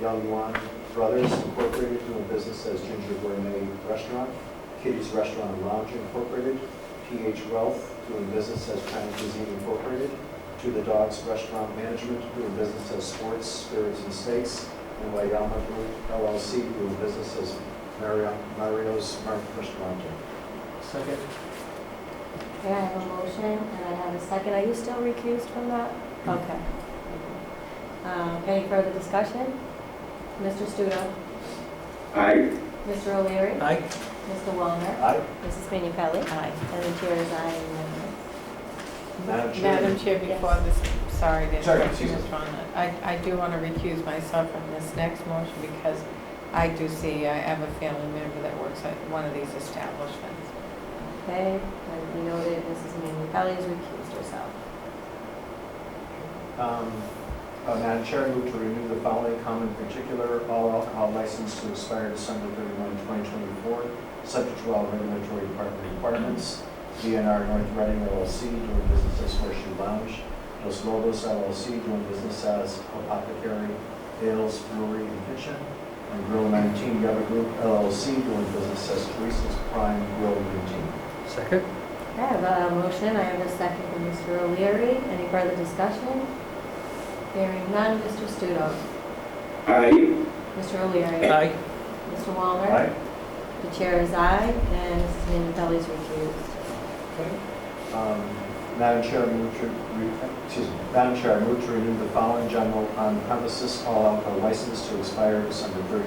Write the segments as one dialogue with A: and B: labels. A: Young Wan Brothers Incorporated, doing business as Ginger Gourmet Restaurant, Kitty's Restaurant and Lounge Incorporated, PH Wealth, doing business as China Cuisine Incorporated, To the Dogs Restaurant Management, doing business as Sports, Spirits and Steaks, and Wayama Group LLC, doing business as Mario- Mario's Mar- Restaurant.
B: Second?
C: Okay, I have a motion and I have a second. Are you still recused from that? Okay. Um, Any further discussion? Mr. Studo.
D: Aye.
C: Mr. O'Leary.
B: Aye.
C: Mr. Wallner.
A: Aye.
C: Mrs. Manu Pelli. Aye. And the chair is aye. unanimous.
A: Madam Chair.
E: Madam Chair, before this, sorry to
A: Sorry,
E: interrupt you,
A: excuse
E: Ms. Rhonda. I, I do want to recuse myself from this next motion because I do see, I have a family member that works at one of these establishments.
C: Okay, and we noted Mrs. Manu Pelli has recused herself.
A: Um, uh, Madam Chair, I move to renew the following common particular all alcohol license to expire December 31, 2024, subject to all regulatory department requirements. DNR North Reading LLC doing business as Horseshoe Lounge. Los Lobos LLC doing business as Apothecary Ales Brewery and Kitchen. And Grill 19 Yaba Group LLC doing business as Teresa's Prime Grill 19.
B: Second?
C: Okay, I have a motion. I have a second from Mr. O'Leary. Any further discussion? Hearing none. Mr. Studo.
D: Aye.
C: Mr. O'Leary.
B: Aye.
C: Mr. Wallner.
A: Aye.
C: The chair is aye, and Mrs. Minipelli is recused.
A: Um, Madam Chair, I move to, re- excuse me, Madam Chair, I move to renew the following general on premises all alcohol license to expire December 31,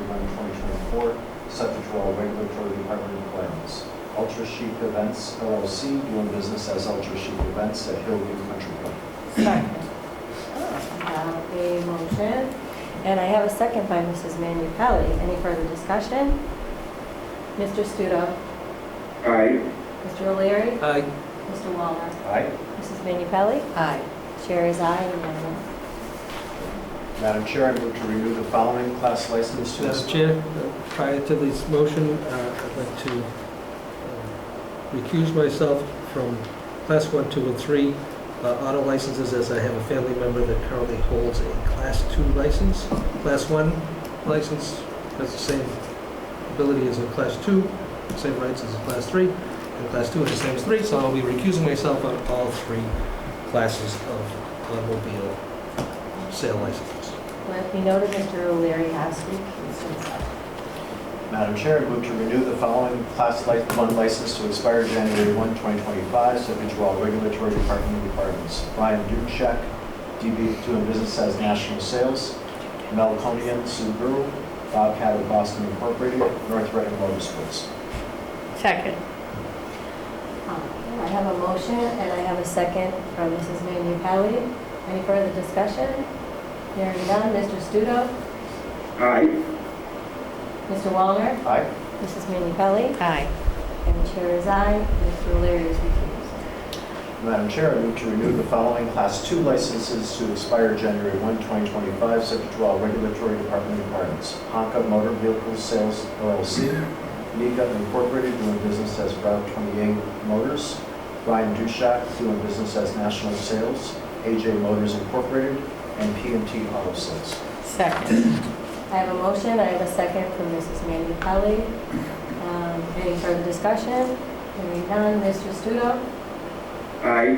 A: 2024, subject to all regulatory department requirements. Ultra Chic Events LLC, doing business as Ultra Chic Events at Hillview Country Club.
E: Second. Oh.
C: I have Uh, a motion, and I have a second by Mrs. Minipelli. Any further discussion? Mr. Studo.
D: Aye.
C: Mr. O'Leary.
B: Aye.
C: Mr. Walner.
A: Aye.
C: Mrs. Minipelli.
E: Aye.
C: Chair is aye, unanimous.
A: Madam Chair, I move to renew the following class license to
B: Madam
A: expire.
B: Chair, uh, prior to this motion, uh, I'd like to um, recuse myself from Class 1, 2, and 3 uh, auto licenses as I have a family member that currently holds a Class 2 license. Class 1 license has the same ability as a Class 2, same rights as a Class 3, and Class 2 is the same as 3, so I'll be recusing myself on all three classes of automobile sale licenses.
C: Let me note that Mr. O'Leary has recused himself.
A: Madam Chair, I move to renew the following class li- 1 license to expire January 1, 2025, subject to all regulatory department requirements. Brian Duchek, DB doing business as National Sales, Melconian Subaru, Bobcat of Boston Incorporated, North Reading Motorsports.
E: Second.
C: I have a motion, and I have a second from Mrs. Minipelli. Any further discussion? Hearing none. Mr. Studo.
D: Aye.
C: Mr. Wallner?
A: Aye.
C: Mrs. Manu Pelli?
E: Aye.
C: And the chair is aye. Mr. O'Leary is recused.
A: Madam Chair, I move to renew the following class 2 licenses to expire January 1, 2025, subject to all regulatory department requirements. Honka Motor Vehicle Sales LLC, Nika Incorporated doing business as Route 28 Motors, Ryan Dushak doing business as National Sales, AJ Motors Incorporated, and PMT Auto Sales.
E: Second.
C: I have a motion, I have a second from Mrs. Manu Pelli. Um, Any further discussion? Hearing none, Mr. Studo,
D: Aye.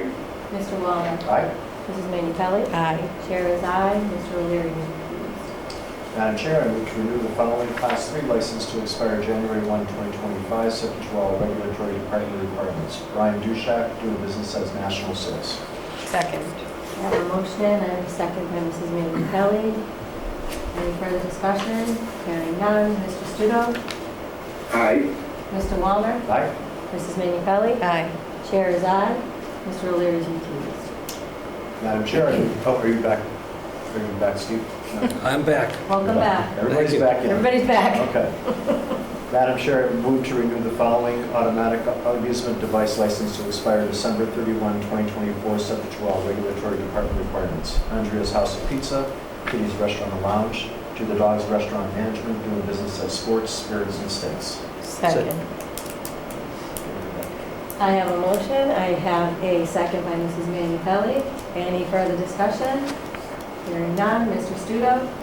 C: Mr. Wallner,
A: Aye.
C: Mrs. Manu Pelli.
E: Aye.
C: Chair is aye, Mr. O'Leary is recused.
A: Madam Chair, I move to renew the following Class 3 license to expire January 1, 2025, subject to all regulatory department requirements. Ryan Dushak, doing business as National Sales.
E: Second.
C: I have a motion, I have a second by Mrs. Manu Pelli. Any further discussion? Hearing none, Mr. Studo,
D: Aye.
C: Mr. Wallner,
A: Aye.
C: Mrs. Manu Pelli.
E: Aye.
C: Chair is aye, Mr. O'Leary is recused.
A: Madam Chair, I move- oh, are you back? Are you back, Steve? No.
B: I'm back.
C: Welcome back.
A: Everybody's
B: Thank you.
A: back in.
C: Everybody's back.
A: Okay. Madam Chair, I move to renew the following automatic amusement device license to expire December 31, 2024, subject to all regulatory department requirements. Andrea's House of Pizza, Kitty's Restaurant and Lounge, To the Dogs Restaurant Management, doing business as Sports, Spirits, and Steaks.
E: Second.
C: I have a motion, I have a second by Mrs. Manu Pelli. Any further discussion? Hearing none, Mr. Studo,